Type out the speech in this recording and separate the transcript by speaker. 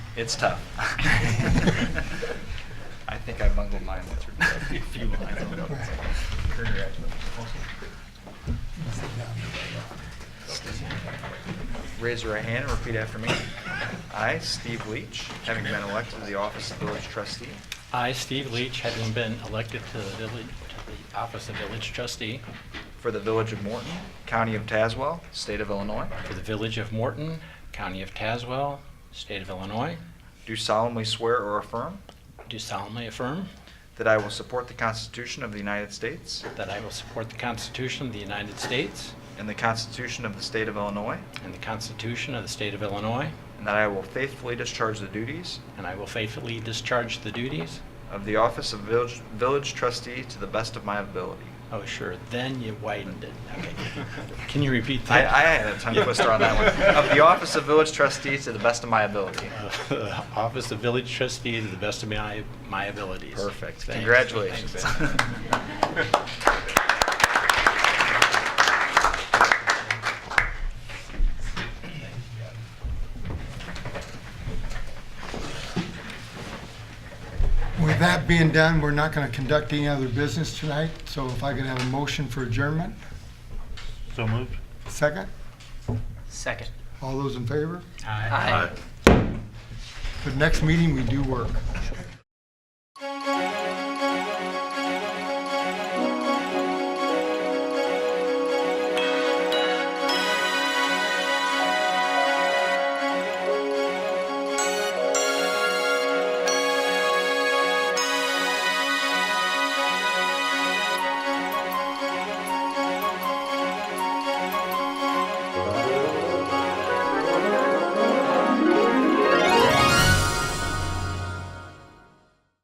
Speaker 1: It's tough. I think I bungled mine with a few lines. on it. Raise your right hand and repeat after me. I, Steve Leach, having been elected to the office of village trustee
Speaker 2: I, Steve Leach, having been elected to the village, to the office of village trustee
Speaker 1: for the village of Morton, county of Tazewell, state of Illinois,
Speaker 2: for the village of Morton, county of Tazewell, state of Illinois,
Speaker 1: do solemnly swear or affirm
Speaker 2: do solemnly affirm
Speaker 1: that I will support the Constitution of the United States
Speaker 2: that I will support the Constitution of the United States
Speaker 1: and the Constitution of the state of Illinois,
Speaker 2: and the Constitution of the state of Illinois,
Speaker 1: and that I will faithfully discharge the duties
Speaker 2: and I will faithfully discharge the duties.
Speaker 1: of the office of village, village trustee to the best of my ability.
Speaker 2: Oh, sure, then you widened it. Okay. Can you repeat
Speaker 1: I, I
Speaker 2: that?
Speaker 1: had a tongue twister on that one. Of the office of village trustee to the best of my ability.
Speaker 2: Uh, Office of Village Trustee to the best of my, my abilities.
Speaker 1: Perfect.
Speaker 2: Thanks.
Speaker 1: Congratulations.
Speaker 2: Thanks.
Speaker 3: With that being done, we're not going to conduct any other business tonight, so if I could have a motion for adjournment,
Speaker 4: So moved.
Speaker 3: second?
Speaker 5: Second.
Speaker 3: All those in favor?
Speaker 2: Aye.
Speaker 5: Aye.
Speaker 3: For the next meeting, we do work.